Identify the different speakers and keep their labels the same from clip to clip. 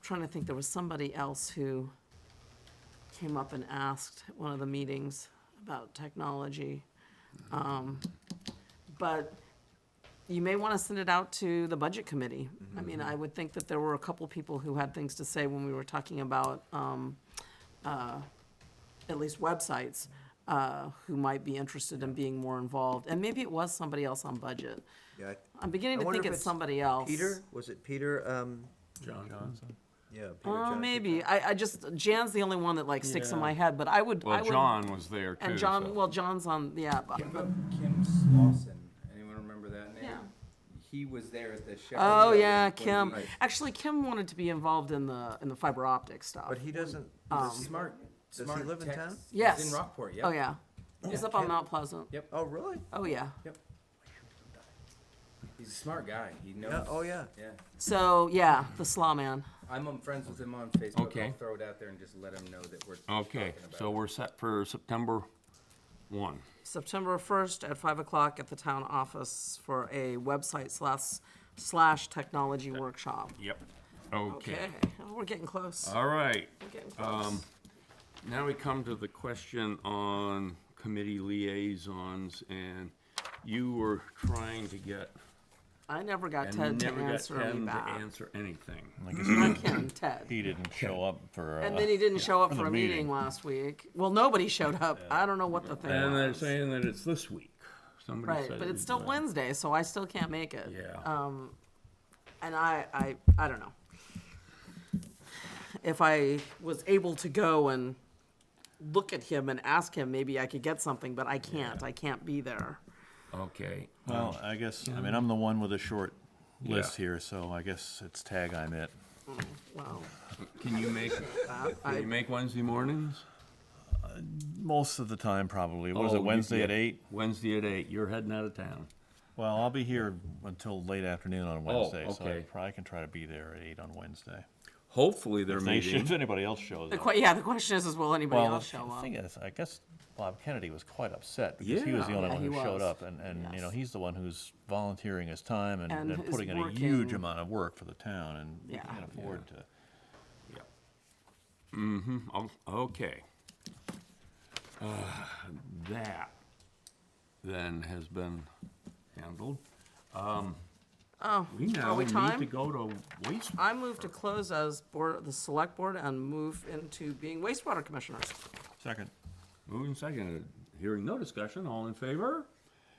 Speaker 1: trying to think, there was somebody else who came up and asked at one of the meetings about technology. Um, But you may want to send it out to the budget committee. I mean,
Speaker 2: Mm-hmm.
Speaker 1: I would think that there were a couple people who had things to say when we were talking about, um, uh, at least websites, uh, who might be interested in being more involved. And maybe it was somebody else on budget.
Speaker 2: Yeah, I-
Speaker 1: I'm beginning
Speaker 2: I
Speaker 1: to
Speaker 2: wonder
Speaker 1: think
Speaker 2: if
Speaker 1: it's
Speaker 2: it's
Speaker 1: somebody else.
Speaker 2: Peter, was it Peter, um,
Speaker 3: John Johnson.
Speaker 2: yeah. Peter
Speaker 1: Oh,
Speaker 2: Johnson.
Speaker 1: maybe. I, I just, Jan's the only one that like sticks in
Speaker 3: Yeah.
Speaker 1: my head, but I would, I
Speaker 3: Well,
Speaker 1: would.
Speaker 3: John was there too.
Speaker 1: And
Speaker 3: so-
Speaker 1: John, well, John's on, yeah, but-
Speaker 4: What about Kim Slauson? Anyone remember that name?
Speaker 1: Yeah.
Speaker 4: He was there at the Shepherd.
Speaker 1: Oh,
Speaker 4: Building
Speaker 1: yeah,
Speaker 4: when
Speaker 1: Kim.
Speaker 4: we-
Speaker 1: Actually, Kim wanted to be involved in the, in the fiber optic stuff.
Speaker 2: But he doesn't,
Speaker 1: Um,
Speaker 4: He's a smart,
Speaker 2: he
Speaker 4: smart
Speaker 2: live in
Speaker 4: tech.
Speaker 2: town?
Speaker 4: He's
Speaker 1: Yes.
Speaker 4: in Rockport, yep.
Speaker 1: Oh, yeah. He's
Speaker 4: Yeah,
Speaker 1: up on
Speaker 4: Kim.
Speaker 1: Mount Pleasant.
Speaker 4: Yep.
Speaker 2: oh, really?
Speaker 1: Oh, yeah.
Speaker 4: He's a smart guy. He knows.
Speaker 2: Yeah, oh, yeah.
Speaker 4: Yeah.
Speaker 1: So, yeah, the Slaw Man.
Speaker 4: I'm um, friends with him on Facebook.
Speaker 3: Okay.
Speaker 4: I'll throw it out there and just let him know that we're
Speaker 3: Okay,
Speaker 4: talking about
Speaker 3: so
Speaker 4: it.
Speaker 3: we're set for September one.
Speaker 1: September 1st at 5 o'clock at the town office for a website slash, slash technology workshop.
Speaker 3: Yep. Okay.
Speaker 1: Okay, Oh, we're getting close.
Speaker 3: All right.
Speaker 1: We're getting close.
Speaker 3: Um, now we come to the question on committee liaisons, and you were trying to get
Speaker 1: I never got Ted
Speaker 3: and
Speaker 1: to
Speaker 3: never got
Speaker 1: answer me
Speaker 3: Ken to
Speaker 1: back.
Speaker 3: answer anything.
Speaker 5: I guess
Speaker 1: Not Ken, Ted.
Speaker 5: he didn't show up for.
Speaker 1: And
Speaker 5: uh,
Speaker 1: then he didn't show up
Speaker 5: For the
Speaker 1: for a meeting
Speaker 5: meeting.
Speaker 1: last week. Well, nobody showed up. I don't know what the thing
Speaker 3: And they're
Speaker 1: was.
Speaker 3: saying that it's this week. Somebody
Speaker 1: Right,
Speaker 3: said
Speaker 1: but
Speaker 3: it
Speaker 1: it's still
Speaker 3: was-
Speaker 1: Wednesday, so I still can't make it.
Speaker 3: Yeah.
Speaker 1: Um, and I, I, I don't know. If I was able to go and look at him and ask him, maybe I could get something, but I can't. I can't be there.
Speaker 3: Okay.
Speaker 5: Well, I guess, I mean, I'm the one with a short list
Speaker 3: Yeah.
Speaker 5: here, so I guess it's tag I'm it.
Speaker 1: Well,
Speaker 3: Can you make,
Speaker 1: that,
Speaker 3: can you
Speaker 1: I,
Speaker 3: make Wednesday mornings?
Speaker 5: Most of the time, probably. What is
Speaker 3: Oh,
Speaker 5: it,
Speaker 3: you
Speaker 5: Wednesday at
Speaker 3: did.
Speaker 5: eight?
Speaker 3: Wednesday at eight. You're heading out of town.
Speaker 5: Well, I'll be here until late afternoon on Wednesday, so I
Speaker 3: okay.
Speaker 5: probably can try to be there at eight on Wednesday.
Speaker 3: Hopefully they're
Speaker 5: If they should-
Speaker 3: meeting.
Speaker 5: If anybody else shows
Speaker 1: the
Speaker 5: up.
Speaker 1: que- yeah, the question is, is will anybody
Speaker 5: Well,
Speaker 1: else show
Speaker 5: the
Speaker 1: up?
Speaker 5: thing is, I guess Bob Kennedy was quite upset because he was the
Speaker 3: Yeah.
Speaker 5: only
Speaker 1: Yeah,
Speaker 5: one
Speaker 1: he
Speaker 5: who
Speaker 1: was.
Speaker 5: showed up. And, and, you know,
Speaker 1: Yes.
Speaker 5: he's the one who's volunteering his time and-
Speaker 1: And
Speaker 5: and
Speaker 1: who's
Speaker 5: putting in a huge
Speaker 1: working.
Speaker 5: amount of work for the town and we
Speaker 1: Yeah.
Speaker 5: can't afford to.
Speaker 3: Oh, Okay. Uh, That then has been handled. Um,
Speaker 1: Oh,
Speaker 3: We
Speaker 1: are
Speaker 3: now
Speaker 1: we
Speaker 3: need to
Speaker 1: time?
Speaker 3: go to waste.
Speaker 1: I move to close as board, the select board and move into being wastewater commissioners.
Speaker 5: Second.
Speaker 3: Moving second, hearing no discussion, all in favor?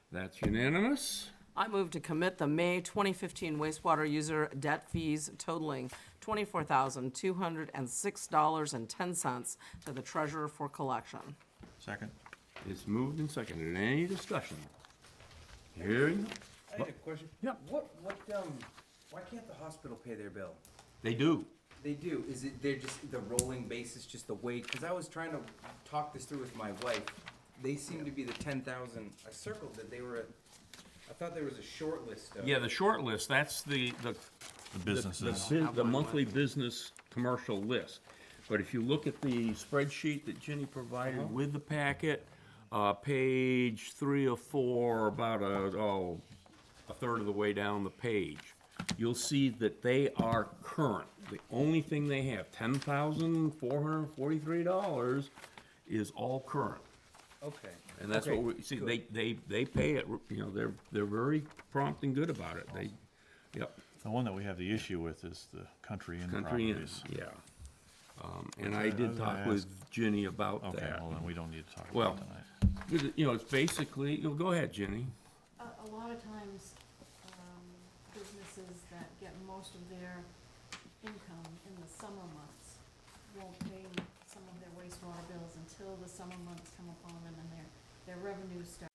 Speaker 3: That's unanimous.
Speaker 1: I move to commit the May 2015 wastewater user debt fees totaling $24,206.10 to the treasurer for collection.
Speaker 5: Second.
Speaker 3: It's moved and seconded. Any discussion? Hearing,
Speaker 4: I had a question.
Speaker 3: Yeah.
Speaker 4: What, what, um, why can't the hospital pay their bill?
Speaker 3: they do.
Speaker 4: They do. Is it, they're just, the rolling basis, just the weight? Because I was trying to talk this through with my wife. They seem to be the ten thousand. I circled that they were, at- I thought there was a short list of.
Speaker 3: Yeah, the short list, that's the, the,
Speaker 5: The
Speaker 3: the- the,
Speaker 5: businesses.
Speaker 3: bu- the monthly business commercial list. But if you look at the spreadsheet that Jenny
Speaker 4: Uh-huh.
Speaker 3: provided with the packet, uh, page three or four, about a, oh, a third of the way down the page, you'll see that they are current. The only thing they have, ten thousand four hundred forty-three dollars, is all current.
Speaker 4: Okay.
Speaker 3: And that's what
Speaker 4: Okay,
Speaker 3: we, see,
Speaker 4: good.
Speaker 3: they, they, they pay it, you know, they're, they're very prompt and good about it. They, yep.
Speaker 5: The one that we have the issue with is the country inn
Speaker 3: Country Inn,
Speaker 5: properties.
Speaker 3: yeah. Um, And
Speaker 5: I
Speaker 3: I did
Speaker 5: was
Speaker 3: talk
Speaker 5: gonna
Speaker 3: with Ginny about
Speaker 5: Okay,
Speaker 3: that.
Speaker 5: well, then we don't need to talk
Speaker 3: Well-
Speaker 5: about it tonight.
Speaker 3: You know, it's basically, you know, go ahead, Ginny.
Speaker 6: A, a lot of times, um, businesses that get most of their income in the summer months won't pay some of their wastewater bills until the summer months come upon them and their, their revenues start.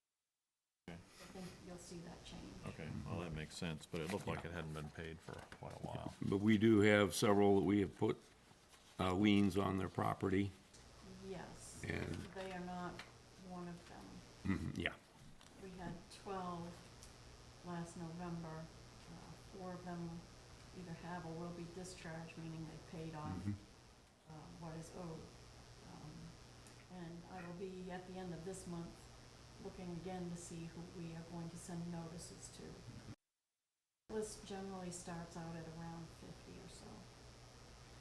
Speaker 6: I think you'll see that change.
Speaker 5: Okay, well, that makes sense, but it looked like it hadn't been paid for quite a while.
Speaker 3: But we do have several that we have put uh, liens on their property,
Speaker 6: Yes,
Speaker 3: and,
Speaker 6: they are not one of them.
Speaker 3: mhm, yeah.
Speaker 6: We had twelve last November. Uh, Four of them either have or will be discharged, meaning they paid off
Speaker 3: mhm.
Speaker 6: uh, what is owed. Um, And I will be at the end of this month looking again to see who we are going to send notices to. List generally starts out at around 50.